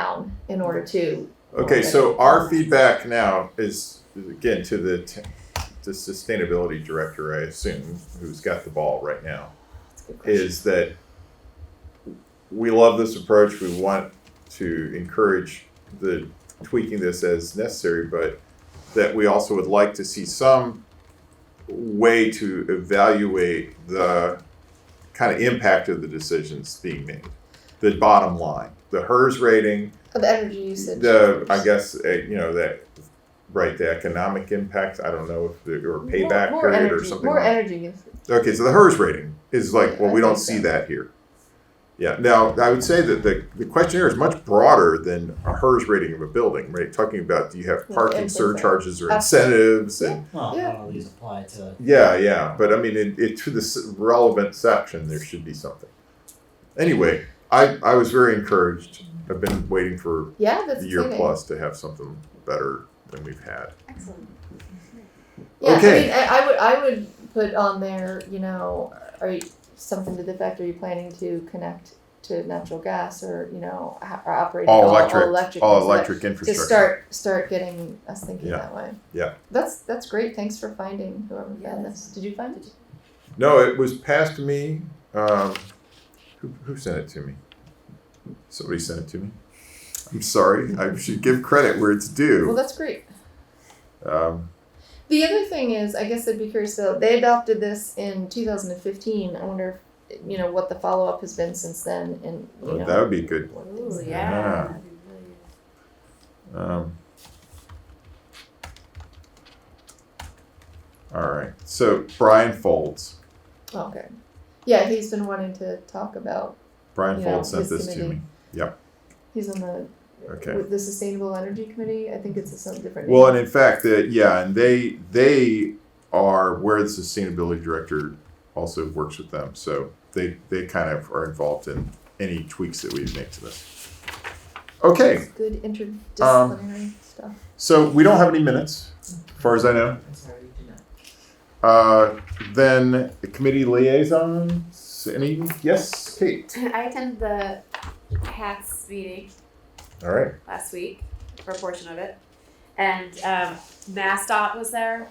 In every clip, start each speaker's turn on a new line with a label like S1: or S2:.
S1: down um, in order to,
S2: Okay, so our feedback now is, is again, to the, t- the sustainability director, I assume, who's got the ball right now,
S1: that's a good question.
S2: is that we love this approach, we want to encourage the tweaking this as necessary, but that we also would like to see some way to evaluate the kind of impact of the decisions being made, the bottom line, the HERS rating,
S1: of energy usage.
S2: the I guess uh, you know that right the economic impact. I don't know if the, or
S1: More-
S2: payback
S1: more
S2: period or
S1: energy-
S2: something.
S1: More
S2: like
S1: energy usage.
S2: Okay, so the hers rating is like well
S1: I
S2: we don't
S1: think
S2: see
S1: so.
S2: that here. Yeah. Now I would say that the, the questionnaire is much broader than a hers rating of a building. Right, talking about do you have
S1: Yeah,
S2: parking
S1: and things like-
S2: surcharges or
S1: Absolutely.
S2: incentives and
S3: Well,
S1: Yeah.
S3: not all these apply to.
S2: yeah, yeah, but I mean, it, it to the s- relevant section, there should be something. Anyway, I I was very encouraged. I've been waiting for
S1: Yeah, that's
S2: the year
S1: exciting.
S2: plus to have something better than we've had.
S4: Excellent.
S1: Yeah, I mean,
S2: Okay.
S1: I, I would I would put on there, you know, are you, something to the effect, are you planning to connect to natural gas or you know, ho- or operating
S2: All
S1: all
S2: electric,
S1: all electric,
S2: all
S1: and stuff?
S2: electric
S1: to
S2: infrastructure.
S1: start start getting us thinking
S2: Yeah.
S1: that way.
S2: Yeah.
S1: That's that's great. Thanks for finding whoever found
S4: Yes.
S1: this. Did you find it?
S2: No, it was passed me. Um, who, who sent it to me? Somebody sent it to me. I'm sorry. I should give credit where it's
S1: Well,
S2: due.
S1: that's great.
S2: Um,
S1: The other thing is, I guess I'd be curious though. They adopted this in 2015. I wonder, if, you know, what the follow up has been since then, and you know,
S2: that would be good.
S1: what things
S4: Ooh,
S1: like
S2: Yeah.
S4: yeah. That'd be really good.
S2: Um, all right. So Brian Folds.
S1: Oh, okay. Yeah, he's been wanting to talk about.
S2: Brian
S1: Yeah,
S2: Folds sent
S1: his
S2: this to
S1: committee.
S2: me.
S1: He's on the
S2: Okay.
S1: with the Sustainable Energy Committee. I think it's a some different.
S2: Well,
S1: name.
S2: and in fact, the, yeah, and they they are where the sustainability director also works with them, so they they kind of are involved in any tweaks that we make to this. Okay,
S1: It's good interdisciplinary
S5: Um,
S1: stuff.
S2: so we don't have any minutes, as far as I know.
S6: I'm sorry, we do not.
S2: Uh, then the committee liaisons. Any yes, Kate.
S4: I attended the CATS meeting
S2: All right.
S4: last week, for a portion of it, and um, MassDOT was there,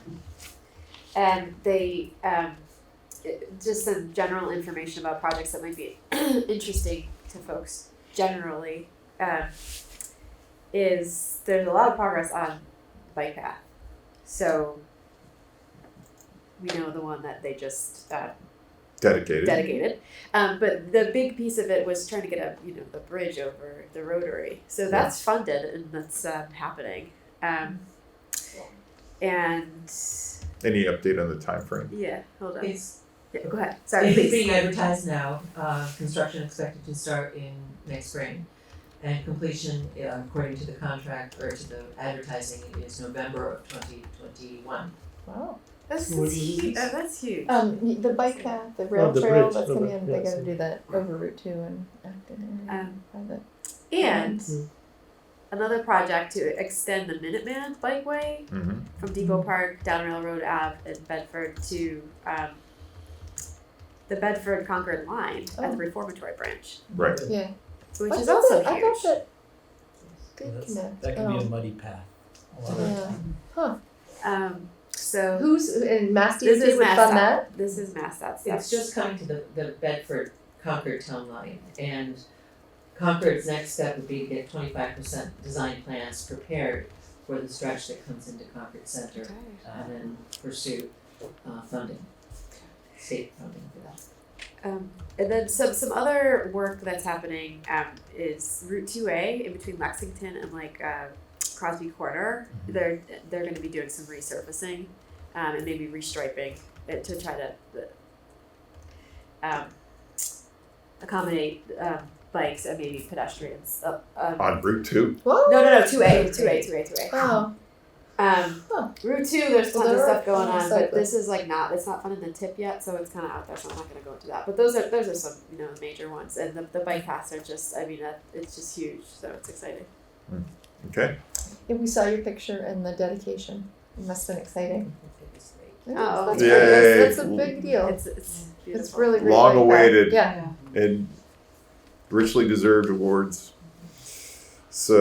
S4: and they um, it- just some general information about projects that might be interesting to folks generally. Um, is there's a lot of progress on bike path, so we know the one that they just uh,
S2: Dedicated.
S4: dedicated. Um, but the big piece of it was trying to get a you know the bridge over the rotary. So that's funded and that's um, happening. Um, and
S2: any update on the time frame?
S4: yeah, hold on.
S6: It's,
S4: Yeah, go ahead. Sorry,
S6: it's
S4: please.
S6: being advertised now, uh, construction expected to start in next spring. And completion, uh, according to the contract or to the advertising, is November of twenty twenty-one.
S1: Wow.
S4: That's,
S5: Would
S4: that's
S5: you
S4: huge.
S5: use-
S4: Oh, that's huge.
S1: Um, y- the bike path, the rail
S5: Oh, the
S1: trail
S5: bridge,
S1: that's
S5: the
S1: coming
S5: bridge,
S1: in, they
S5: yes. Oh.
S1: gotta do that over Route Two and Acton area.
S4: Um,
S1: private.
S4: and
S5: Mm.
S4: another project to extend the Minuteman bikeway
S2: Mm-hmm.
S4: from Depot Park down Railroad Ave in Bedford to um, the Bedford Concord line at
S1: Oh.
S4: the Reformatory branch,
S2: Right.
S1: Yeah.
S4: which
S1: I
S4: is
S1: thought
S4: also
S1: that- I
S4: huge.
S1: thought that. Good
S5: That's-
S1: connect.
S5: That could be a
S1: Oh,
S5: muddy path. A lot of-
S1: Yeah.
S4: Um, so
S1: Who's in Mass
S4: this
S1: DOT
S4: is
S1: would fund that?
S4: Mass. This is Mass. That's
S6: It's just coming to the, the Bedford Concord town line and Concord's next step would be to get twenty-five percent design plans prepared for the stretch that comes into Concord Center uh, and then pursue, uh, funding, state funding for that.
S4: Um, and then some some other work that's happening um, is Route Two A in between Lexington and like uh, Crosby Corner. They're they're going to be doing some resurfacing um, and maybe restriping it to try to uh, um, accommodate um, bikes and maybe pedestrians. Uh, um,
S2: On Route Two.
S1: Whoa.
S4: no, no, no. Two A, two A, two A, two A.
S1: Oh,
S4: Um,
S1: Huh.
S4: Route two, there's
S1: Well,
S4: tons of
S1: there are
S4: stuff going
S1: tons
S4: on,
S1: of
S4: but
S1: cyclists.
S4: this is like not, it's not fun in the tip yet, so it's kind of out there, so I'm not gonna go into that. But those are, those are some, you know, major ones, and the, the bike paths are just, I mean, that, it's just huge, so it's exciting.
S2: Okay.
S1: yeah, we saw your picture and the dedication. It must've been exciting.
S6: It was great.
S1: It is.
S4: Oh.
S1: That's great. That's-
S2: Yay.
S1: That's a big deal.
S4: It's, it's beautiful.
S1: It's really, really. like
S2: Long
S1: that.
S2: awaited.
S1: Yeah.
S2: and richly deserved awards. So